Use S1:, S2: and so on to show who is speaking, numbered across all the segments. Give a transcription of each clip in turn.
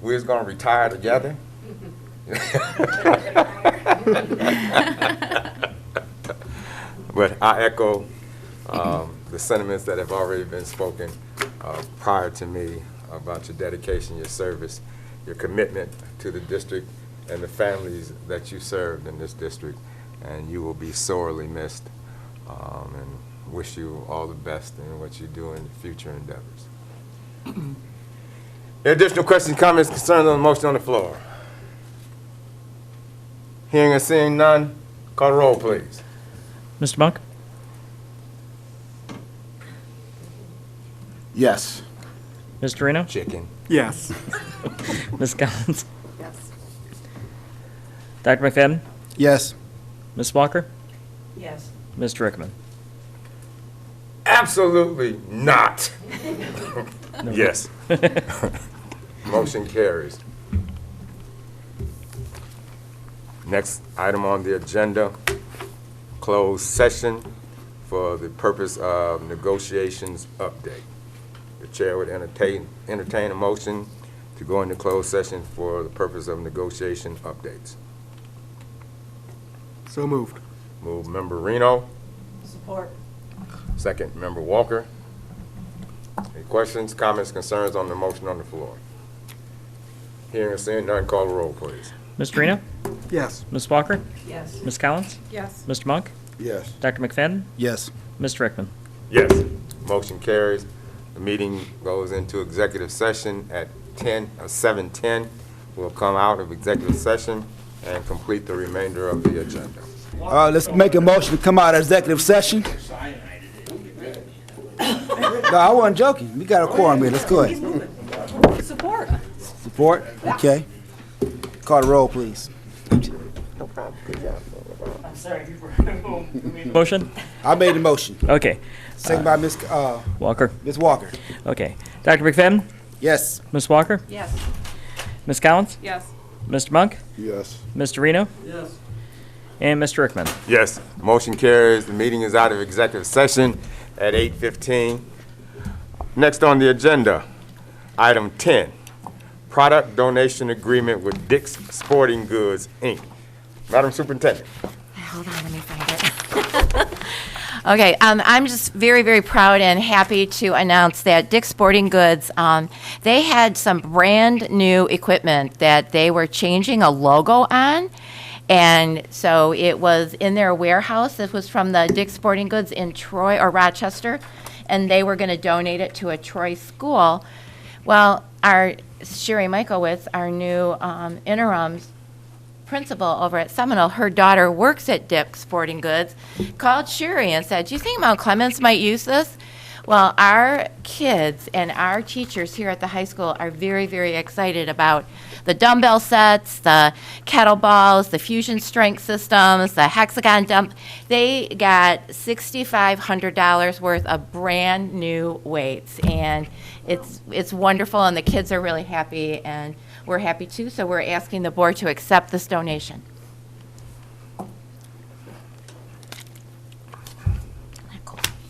S1: we was gonna retire together. But I echo um, the sentiments that have already been spoken uh, prior to me about your dedication, your service, your commitment to the district and the families that you served in this district, and you will be sorely missed. Um, And wish you all the best in what you do in your future endeavors. Any additional questions, comments, concerns on the motion on the floor? Hearing and seeing none, call the roll, please.
S2: Mr. Monk?
S3: Yes.
S2: Mr. Reno?
S1: Chicken.
S3: Yes.
S2: Ms. Collins?
S4: Yes.
S2: Dr. McFadden?
S3: Yes.
S2: Ms. Walker?
S4: Yes.
S2: Mr. Rickman?
S1: Absolutely not. Yes. Motion carries. Next item on the agenda, closed session for the purpose of negotiations update. The chair would entertain, entertain a motion to go into closed session for the purpose of negotiation updates.
S3: So moved.
S1: Move member Reno,
S4: Support.
S1: second member Walker. Any questions, comments, concerns on the motion on the floor? Hearing and seeing none, call the roll, please.
S2: Mr. Reno?
S3: Yes.
S2: Ms. Walker?
S4: Yes.
S2: Ms. Collins?
S4: Yes.
S2: Mr. Monk?
S3: Yes.
S2: Dr. McFadden?
S3: Yes.
S2: Mr. Rickman?
S1: Yes. Motion carries. The meeting goes into executive session at 10, uh, 7:10. We'll come out of executive session and complete the remainder of the agenda.
S3: All right, Uh, let's make a motion to come out of executive session. No, I wasn't joking. We got a quorum here. Let's go ahead.
S4: Support.
S3: Support? Okay. Call the roll, please.
S2: Motion?
S3: I made the motion.
S2: Okay.
S3: Second by Ms., C- uh,
S2: Walker?
S3: Ms. Walker.
S2: Okay. Dr. McFadden?
S3: Yes.
S2: Ms. Walker?
S4: Yes.
S2: Ms. Collins?
S4: Yes.
S2: Mr. Monk?
S3: Yes.
S2: Mr. Reno? Yes. And Mr. Rickman?
S1: Yes. Motion carries. The meeting is out of executive session at 8:15. Next on the agenda, item 10, product donation agreement with Dick's Sporting Goods, Inc. Madam Superintendent.
S5: Hold on, let me find it. Okay, um, I'm just very, very proud and happy to announce that Dick's Sporting Goods, um, they had some brand-new equipment that they were changing a logo on. And so it was in their warehouse. This was from the Dick's Sporting Goods in Troy or Rochester. And they were going to donate it to a Troy school. Well, our Sherry Michaelwitz, our new um, interim principal over at Seminole, her daughter works at Dick's Sporting Goods, called Sherry and said, "Do you think Mount Clemens might use this?" Well, our kids and our teachers here at the high school are very, very excited about the dumbbell sets, the kettlebells, the fusion strength systems, the hexagon dump. They got sixty-five hundred dollars worth of brand new weights, and it's it's wonderful, and the kids are really happy, and we're happy too, so we're asking the board to accept this donation.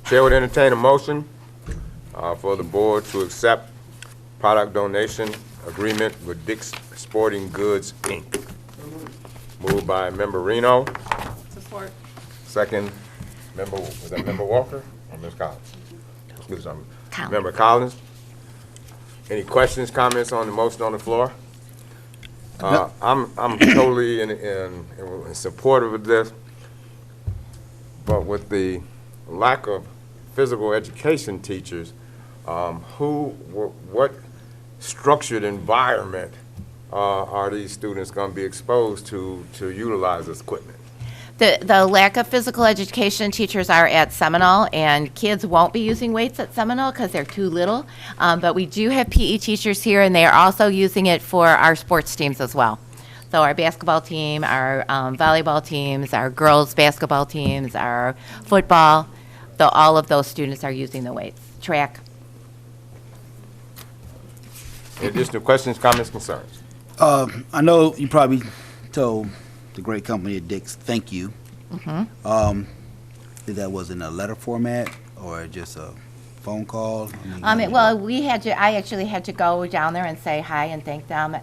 S1: Chair would entertain a motion uh, for the board to accept product donation agreement with Dick's Sporting Goods, Inc. Moved by Member Reno,
S4: Support.
S1: second, Member, was that Member Walker or Ms. Collins? Excuse me,
S5: Collins.
S1: Member Collins. Any questions, comments on the motion on the floor? Uh, I'm, I'm totally in, in, in support of this, but with the lack of physical education teachers, um, who, wh- what structured environment uh, are these students going to be exposed to, to utilize this equipment?
S5: The, the lack of physical education teachers are at Seminole, and kids won't be using weights at Seminole because they're too little. Um, but we do have PE teachers here, and they are also using it for our sports teams as well. So our basketball team, our um, volleyball teams, our girls' basketball teams, our football, though all of those students are using the weights. Track.
S1: Any additional questions, comments, concerns?
S3: Uh, I know you probably told the great company at Dick's, thank you. Um, if that was in a letter format or just a phone call? I mean,
S5: Um,
S3: how
S5: it-
S3: did
S5: well, we had to, I actually had to go down there and say hi and thank them,